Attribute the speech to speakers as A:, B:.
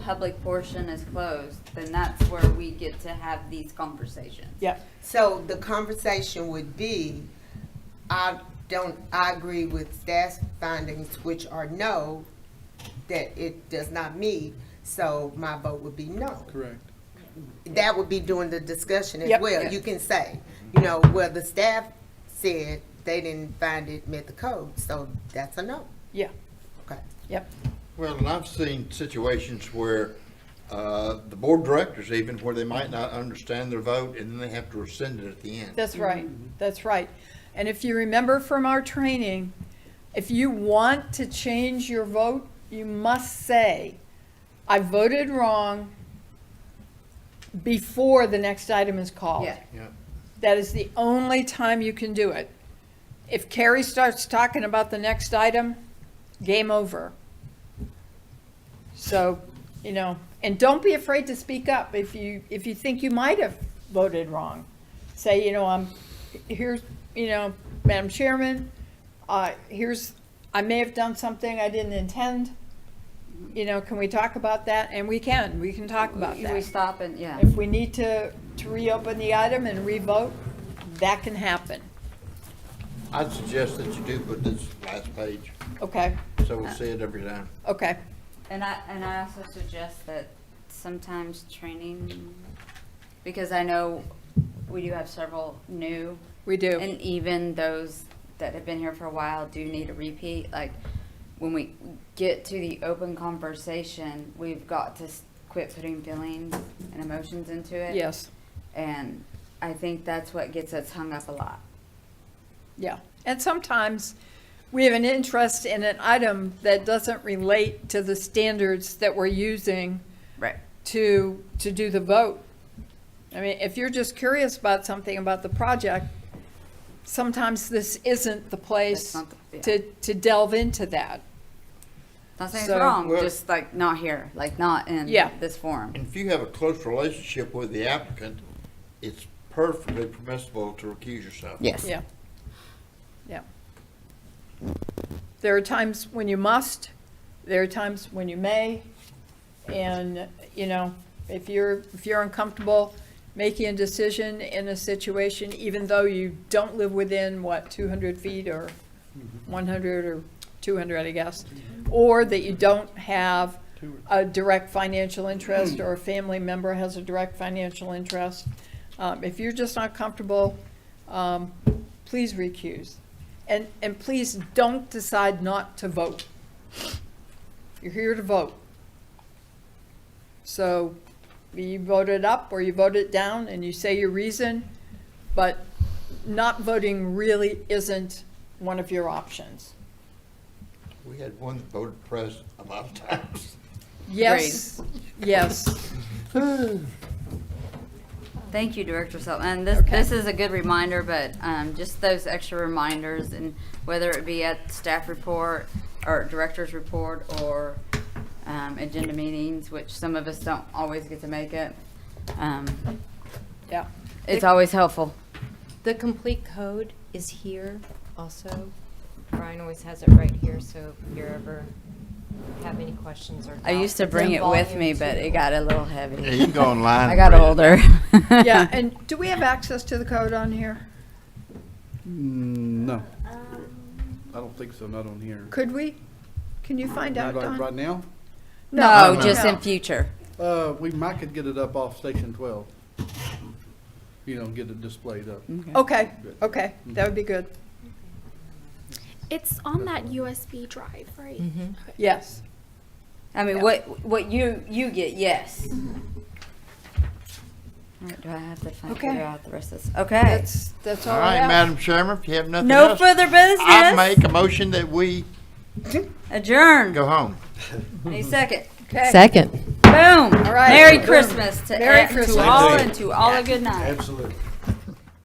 A: public portion is closed, then that's where we get to have these conversations.
B: Yep.
C: So the conversation would be, I don't, I agree with staff's findings, which are no, that it does not meet, so my vote would be no.
D: Correct.
C: That would be during the discussion as
B: Yep.
C: well. You can say, you know, well, the staff said they didn't find it met the code, so that's a no.
B: Yeah,
C: Okay.
B: yep.
E: Well, and I've seen situations where uh, the board directors even, where they might not understand their vote, and then they have to rescind it at the end.
B: That's right, that's right. And if you remember from our training, if you want to change your vote, you must say, I voted wrong before the next item is called.
A: Yeah.
E: Yeah.
B: That is the only time you can do it. If Carrie starts talking about the next item, game over. So, you know, and don't be afraid to speak up if you, if you think you might have voted wrong. Say, you know, I'm, here's, you know, Madam Chairman, uh, here's, I may have done something I didn't intend. You know, can we talk about that? And we can, we can talk about
A: We-
B: that.
A: We stop and, yeah.
B: If we need to, to reopen the item and revote, that can happen,
E: I'd suggest that you do put this last page,
B: okay,
E: so we see it every time.
B: okay.
A: And I, and I also suggest that sometimes training, because I know we do have several new.
B: We do.
A: And even those that have been here for a while do need a repeat, like, when we get to the open conversation, we've got to s- quit putting feelings and emotions into it.
B: Yes,
A: And I think that's what gets us hung up a lot.
B: yeah. And sometimes we have an interest in an item that doesn't relate to the standards that we're using
A: Right.
B: to, to do the vote. I mean, if you're just curious about something about the project, sometimes this isn't the place
A: not the- yeah.
B: to, to delve into that.
A: Not saying
B: So-
A: it's wrong,
E: Well-
A: just like not here, like not in
B: Yeah.
A: this forum.
E: And if you have a close relationship with the applicant, it's perfectly permissible to recuse yourself.
A: Yes.
B: Yeah. Yeah. There are times when you must, there are times when you may, and, you know, if you're, if you're uncomfortable making a decision in a situation, even though you don't live within, what, two hundred feet or one hundred or two hundred, I guess, or that you don't have a direct financial interest or a family member has a direct financial interest, um, if you're just not comfortable, um, please recuse. And, and please don't decide not to vote. You're here to vote. So you vote it up or you vote it down and you say your reason, but not voting really isn't one of your options.
E: We had one that voted press a lot of times.
B: Yes, yes,
A: Thank you, Director Sel, and this,
B: Okay.
A: this is a good reminder, but, um, just those extra reminders and whether it be at staff report or director's report or, um, agenda meetings, which some of us don't always get to make it. Um,
B: yeah.
A: it's always helpful.
F: The complete code is here also. Brian always has it right here, so if you ever have any questions or
A: I used to
F: doubts,
A: bring
F: it's
A: it
F: in
A: with me,
F: volume
A: but
F: two.
A: it got a little heavy.
E: Yeah, you can go online
A: I
E: and
A: got
E: read it.
A: older.
B: Yeah, and do we have access to the code on here?
D: No. I don't think so, not on here.
B: Could we? Can you find out,
D: Right-
B: Don?
D: Right now?
A: No, just in
B: no.
A: future.
D: Uh, we might could get it up off Station 12. You know, get it displayed up.
B: Okay, okay, that would be good.
G: It's on that USB drive, right?
F: Mm-hmm.
B: Yes,
A: I mean, what, what you, you get, yes.
B: Mm-hmm.
A: All right, do I have to find,
B: Okay.
A: figure out the rest of this? Okay.
B: that's, that's all
E: All
B: I
E: right,
B: have.
E: Madam Chairman, if you have nothing
A: No
E: else.
A: further
E: I
A: business.
E: make a motion that we
A: Adjourn.
E: go Hmm. home.
A: Any second.
B: Okay.
A: Boom. All
B: right.
A: Merry Christmas to,
B: Merry
A: e- to
B: Christmas.
A: all and to all a good night.
H: Absolutely.